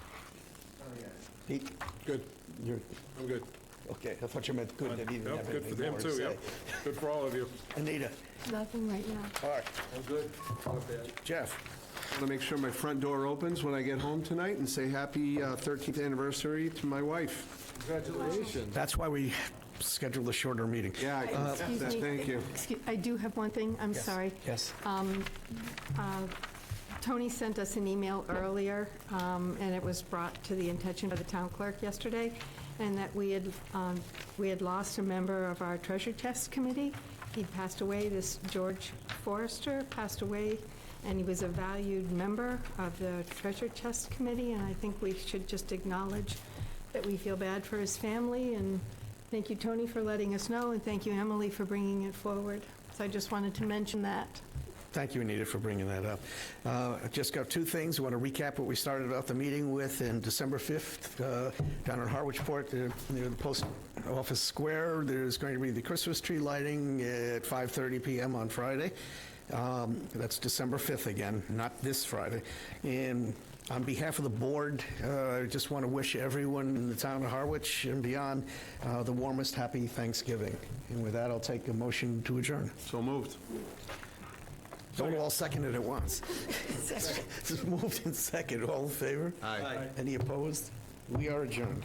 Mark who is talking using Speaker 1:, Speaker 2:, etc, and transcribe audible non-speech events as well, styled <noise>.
Speaker 1: Pete,
Speaker 2: Good,
Speaker 1: you're,
Speaker 2: I'm good.
Speaker 1: okay, I thought you meant good that he didn't
Speaker 2: Yep,
Speaker 1: have
Speaker 2: Good
Speaker 1: anything
Speaker 2: for him
Speaker 1: more to
Speaker 2: too, yeah.
Speaker 1: say.
Speaker 2: Good for all of you.
Speaker 1: Anita,
Speaker 3: Nothing right now.
Speaker 1: all right,
Speaker 2: I'm good.
Speaker 1: Jeff,
Speaker 4: want to make sure my front door opens when I get home tonight and say happy uh, 13th anniversary to my wife.
Speaker 2: Congratulations.
Speaker 1: that's why we scheduled a shorter meeting.
Speaker 4: Yeah, I can accept
Speaker 3: Uh, Excuse
Speaker 4: that.
Speaker 3: me.
Speaker 4: Uh, thank you.
Speaker 3: Excuse, I do have one thing, I'm sorry.
Speaker 1: Yes.
Speaker 3: Um, Tony sent us an email earlier, um, and it was brought to the attention by the town clerk yesterday, and that we had, um, we had lost a member of our treasure test committee. He passed away, this George Forrester passed away, and he was a valued member of the treasure test committee, and I think we should just acknowledge that we feel bad for his family, and thank you, Tony, for letting us know, and thank you, Emily, for bringing it forward. So I just wanted to mention that.
Speaker 1: Thank you, Anita, for bringing that up. Uh, I Just got two things. I want to recap what we started out the meeting with in December 5th uh, down in Harwichport, uh, near the Post Office Square. There's going to be the Christmas tree lighting at 5:30 PM on Friday. Um, That's December 5th again, not this Friday. And on behalf of the board, uh, I just want to wish everyone in the town of Harwich and beyond uh, the warmest, happy Thanksgiving. And with that, I'll take a motion to adjourn.
Speaker 4: So moved.
Speaker 1: Don't all second it at once. <laughs> It's moved in second, all in favor? Aye. Any opposed? We are adjourned.